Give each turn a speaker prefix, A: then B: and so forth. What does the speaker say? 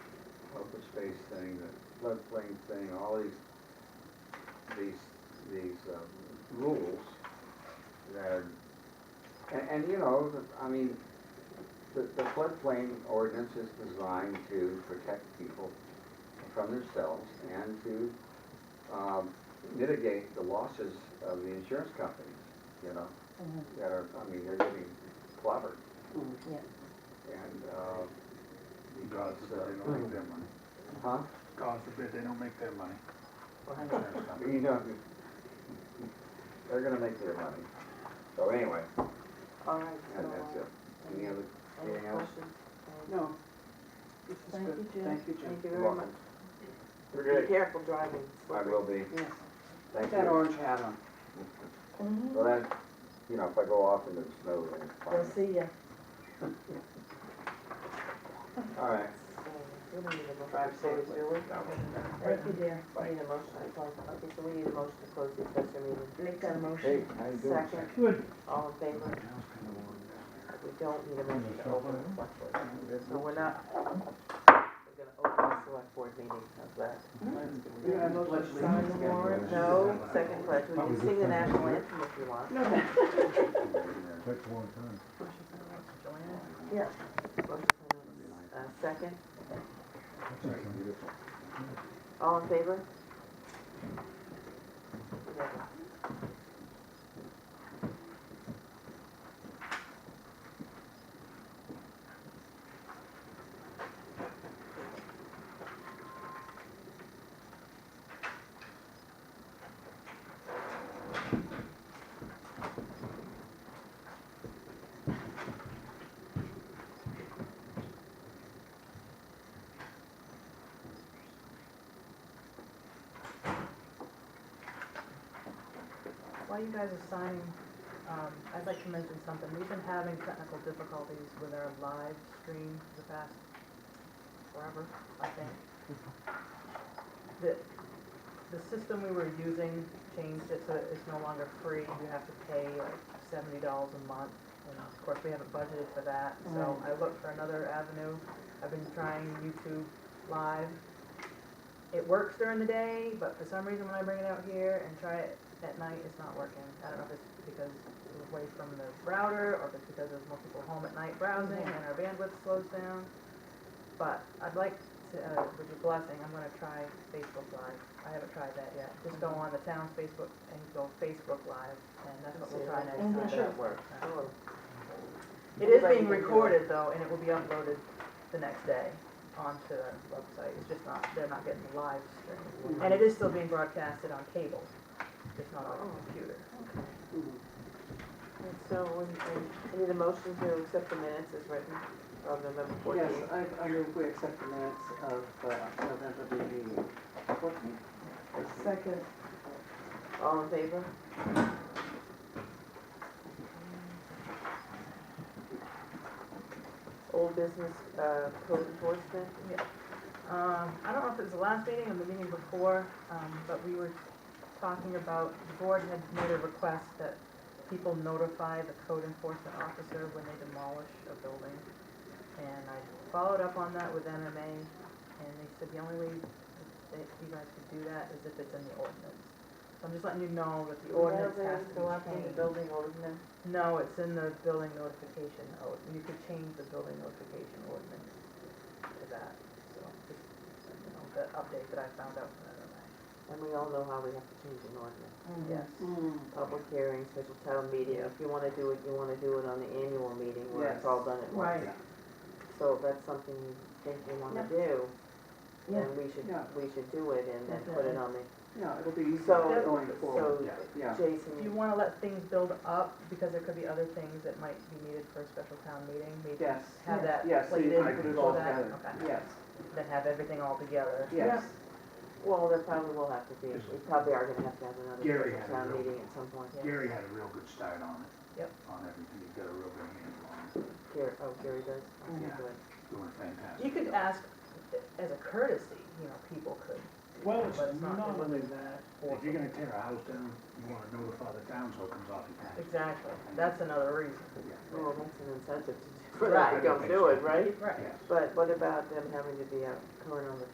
A: space thing, the floodplain thing, all these, these, these um, rules that are, and, and you know, the- I mean, the, the floodplain ordinance is designed to protect people from themselves and to um, mitigate the losses of the insurance companies, you know, that are, I mean, they're getting clobbered.
B: Mm-hmm, Yeah.
A: And, uh,
C: God
A: because,
C: forbid they
A: uh,
C: don't make their money.
A: huh?
C: God forbid they don't make their money.
B: I know.
C: Insurance company.
A: You know, they're gonna make their money. So anyway,
D: All right, so,
A: and that's it. Any other,
D: uh, any
A: anything else?
D: questions? Uh,
B: No.
D: This is
B: Thank you,
D: good.
B: Jim.
D: Thank you, Jim. Thank you
A: You're
D: very much.
A: welcome.
D: Be careful driving.
A: I will be.
B: Yes.
A: Thank
B: That
A: you.
B: orange hat on.
A: Well, that, you know, if I go off into the snow, then it's
B: Mm-hmm. We'll
A: fine.
B: see ya.
A: All right.
D: So, We don't need a motion
B: Drive
D: to close,
B: safely.
D: do we?
A: No.
B: Thank you, dear.
D: We need a motion to close, okay, so we need a motion to close the accessory meeting.
B: Make that
A: Hey,
B: motion.
A: how you doing?
D: Second. All in favor? We don't need a motion to open the select board. So we're not, we're gonna open the select board meeting, how's that?
B: We have a motion to sign the warrant.
D: No, second pledge, we can sing the national anthem if you want.
B: No, thank
E: Takes a long time.
B: Yeah.
D: Uh, second, all in favor?
F: While you guys are signing, um, I'd like to mention something. We've been having technical difficulties with our live stream for the past forever, I think. The, the system we were using changed it so that it's no longer free. You have to pay like seventy dollars a month. And of course, we haven't budgeted for that, so I looked for another avenue. I've been trying YouTube Live. It works during the day, but for some reason when I bring it out here and try it at night, it's not working. I don't know if it's because it was away from the router or if it's because there's more people home at night browsing and our bandwidth slows down. But I'd like to, uh, with your blessing, I'm gonna try Facebook Live. I haven't tried that yet. Just go on the town's Facebook and go Facebook Live and that's what we'll try next
B: Mhm, sure.
F: time.
D: works. Sure.
F: It is being recorded though, and it will be uploaded the next day onto the website, it's just not, they're not getting the live stream. And it is still being broadcasted on cable, just not on a computer.
D: And so, we we- we need a motion to accept the minutes as written of November
B: Yes,
D: fourteenth.
B: I, I move we accept the minutes of uh, November the fourteenth. Second.
D: All in favor? Old business, uh, code enforcement,
F: Um, I don't know if it was the last meeting or the meeting before, um, but we were talking about, the board had made a request that people notify the code enforcement officer when they demolish a building. And I followed up on that with MMA, and they said the only way that you guys could do that is if it's in the ordinance. So I'm just letting you know that the ordinance has to
D: go up in the
F: be changed.
D: building ordinance.
F: No, it's in the building notification, oh, you could change the building notification ordinance to that, so, just, you know, the update that I found out from MMA.
D: And we all know how we have to change an ordinance.
F: Yes.
B: Hmm,
D: Public hearing, special town meeting, if you wanna do it, you wanna do it on the annual meeting where it's
B: Yes.
D: all done at once. So if that's something you think you wanna do, then we should,
B: Yeah.
D: we should do it and then put it on the,
B: Yeah, it'll be easier
D: So-
B: going forward.
D: so-
B: Yeah.
D: Jason.
F: Do you wanna let things build up, because there could be other things that might be needed for a special town meeting, maybe
B: Yes.
F: have that
B: Yes, so you can
F: plated
B: put it all
F: for that,
B: together.
F: okay.
B: Yes,
F: Then have everything all together.
B: yes.
D: Well, there probably will have to be, we probably are gonna have to have another
C: Gary
D: special
C: had a
D: town
C: real-
D: meeting at some point.
C: Gary had a real good start on it.
F: Yep.
C: On everything, he's got a real good handle on it,
D: Gary, oh, Gary does, okay,
C: Yeah.
D: good.
C: doing fantastic.
F: You could ask, as a courtesy, you know, people could,
C: Well, it's
F: But it's not-
C: not only that, if you're
F: awful.
C: gonna tear a house down, you wanna notify the town so it comes off your taxes.
F: exactly, that's another reason.
C: Yeah.
D: Well, that's an incentive to, do-
C: Right.
D: right, don't do it, right?
F: Right.
C: Yes.
D: But what about them having to be out current on the